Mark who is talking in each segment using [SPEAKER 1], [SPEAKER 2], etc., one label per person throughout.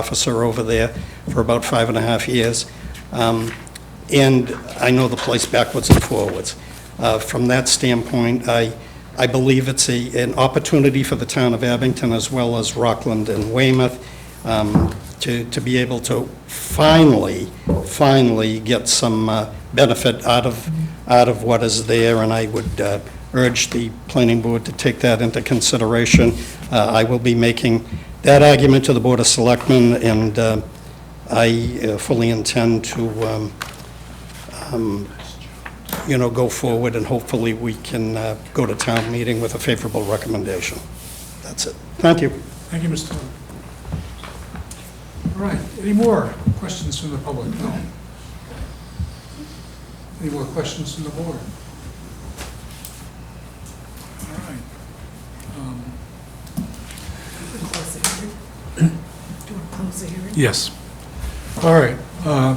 [SPEAKER 1] officer over there for about five and a half years. Um, And I know the place backwards and forwards. Uh, From that standpoint, I, I believe it's a, an opportunity for the town of Abington as well as Rockland and Weymouth um, to, to be able to finally, finally get some uh, benefit out of, out of what is there, and I would uh, urge the planning board to take that into consideration. Uh, I will be making that argument to the Board of Selectmen, and uh, I uh, fully intend to, um, um, you know, go forward, and hopefully we can uh, go to town meeting with a favorable recommendation. That's it. Thank you.
[SPEAKER 2] Thank you, Mr. Tillman. All right, any more questions from the public? No. Any more questions from the board? All right. Um,
[SPEAKER 3] Close the hearing? Do you want to close the hearing?
[SPEAKER 2] Yes. All right. uh, I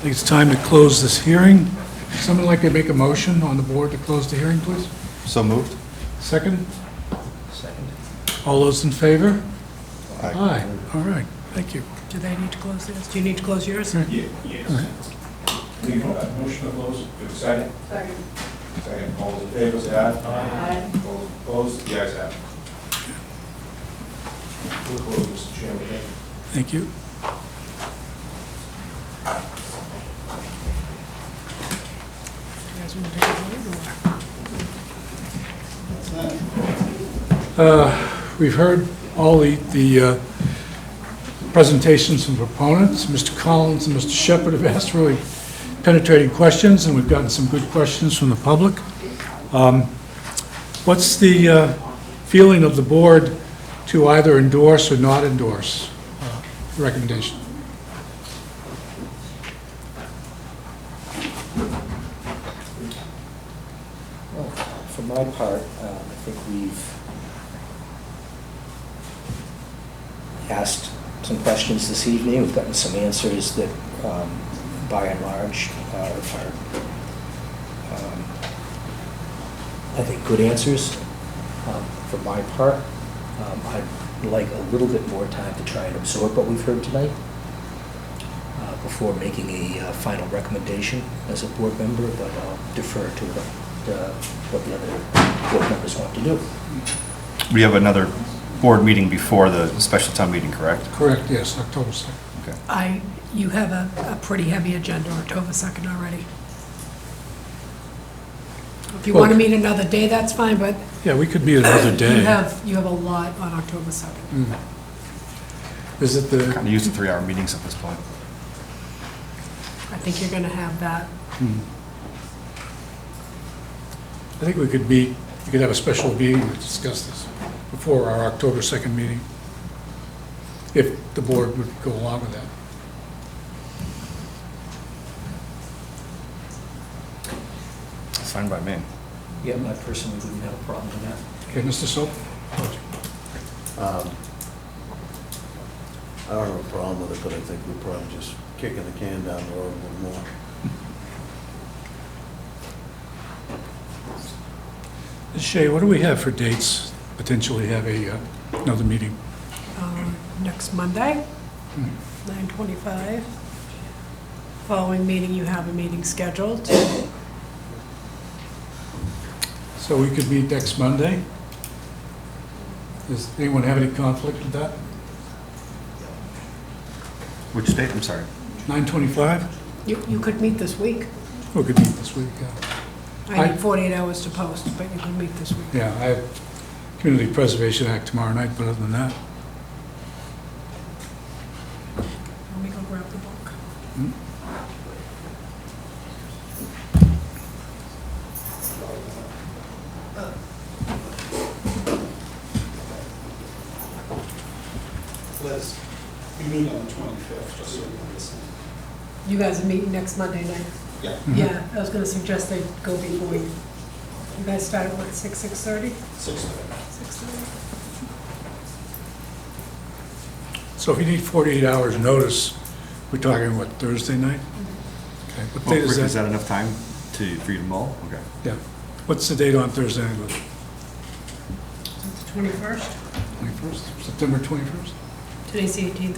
[SPEAKER 2] think it's time to close this hearing. Someone like to make a motion on the board to close the hearing, please?
[SPEAKER 4] So moved?
[SPEAKER 2] Second? Second. All those in favor?
[SPEAKER 4] Aye.
[SPEAKER 2] All right, thank you.
[SPEAKER 3] Do they need to close theirs? Do you need to close yours?
[SPEAKER 5] Ye- Yes. Do you want a motion to close? Second? Second. Second, all those in favor, say aye. Aye. All those opposed, the ayes have it. We'll close, Mr. Chairman, thank you.
[SPEAKER 2] Thank you.
[SPEAKER 3] Do you guys want to take a vote or?
[SPEAKER 2] We've heard all the, the uh, presentations from proponents. Mr. Collins and Mr. Shepherd have asked really penetrating questions, and we've gotten some good questions from the public. Um, What's the uh, feeling of the board to either endorse or not endorse uh, the recommendation?
[SPEAKER 6] Well, For my part, uh, I think we've asked some questions this evening, we've gotten some answers that, um, by and large, are, are, um, I think, good answers. Um, For my part, um, I'd like a little bit more time to try and absorb what we've heard tonight uh, before making a uh, final recommendation as a board member, but I'll defer to what, uh, what the other board members want to do.
[SPEAKER 4] We have another board meeting before the special town meeting, correct?
[SPEAKER 2] Correct, yes, October 2nd.
[SPEAKER 4] Okay.
[SPEAKER 3] I, you have a, a pretty heavy agenda October 2nd already. If you want
[SPEAKER 2] Well-
[SPEAKER 3] to meet another day, that's fine, but
[SPEAKER 2] Yeah, we could meet another
[SPEAKER 3] you
[SPEAKER 2] day.
[SPEAKER 3] have, you have a lot on October 2nd.
[SPEAKER 2] Mm. Is it the,
[SPEAKER 4] Kind of used to three-hour meetings at this point.
[SPEAKER 3] I think you're going to have that.
[SPEAKER 2] I think we could meet, we could have a special meeting to discuss this before our October 2nd meeting, if the board would go along with that.
[SPEAKER 4] It's fine by me.
[SPEAKER 6] Yeah, I personally wouldn't have a problem with that.
[SPEAKER 2] Okay, Mr. Soap?
[SPEAKER 7] Um, I don't have a problem with it, but I think we're probably just kicking the can down the road a little more.
[SPEAKER 2] Shay, what do we have for dates, potentially have a, uh, another meeting?
[SPEAKER 3] um, Next Monday, 9:25. Following meeting, you have a meeting scheduled.
[SPEAKER 2] So we could meet next Monday? Does anyone have any conflict with that?
[SPEAKER 4] Which date, I'm sorry?
[SPEAKER 2] 9:25?
[SPEAKER 3] You, you could meet this week.
[SPEAKER 2] We could meet this week, yeah.
[SPEAKER 3] I
[SPEAKER 2] I-
[SPEAKER 3] need 48 hours to post, but you can meet this week.
[SPEAKER 2] Yeah, I have Community Preservation Act tomorrow night, but other than that, mm-hmm.
[SPEAKER 3] Let me go grab the book.
[SPEAKER 1] Liz, we meet on the 25th, just so you understand.
[SPEAKER 3] You guys are meeting next Monday night?
[SPEAKER 1] Yeah.
[SPEAKER 2] Mm-hmm.
[SPEAKER 3] Yeah, I was gonna suggest they go before you. You guys start at what, six, six thirty?
[SPEAKER 1] Six thirty.
[SPEAKER 3] Six thirty?
[SPEAKER 2] So if you need 48 hours notice, we're talking, what, Thursday night? Okay, what date
[SPEAKER 4] Is
[SPEAKER 2] is that?
[SPEAKER 4] that enough time to, for you to mull? Okay.
[SPEAKER 2] Yeah, what's the date on Thursday, night?
[SPEAKER 3] Twenty-first?
[SPEAKER 2] 21st, September 21st?
[SPEAKER 3] Today's the eighteenth,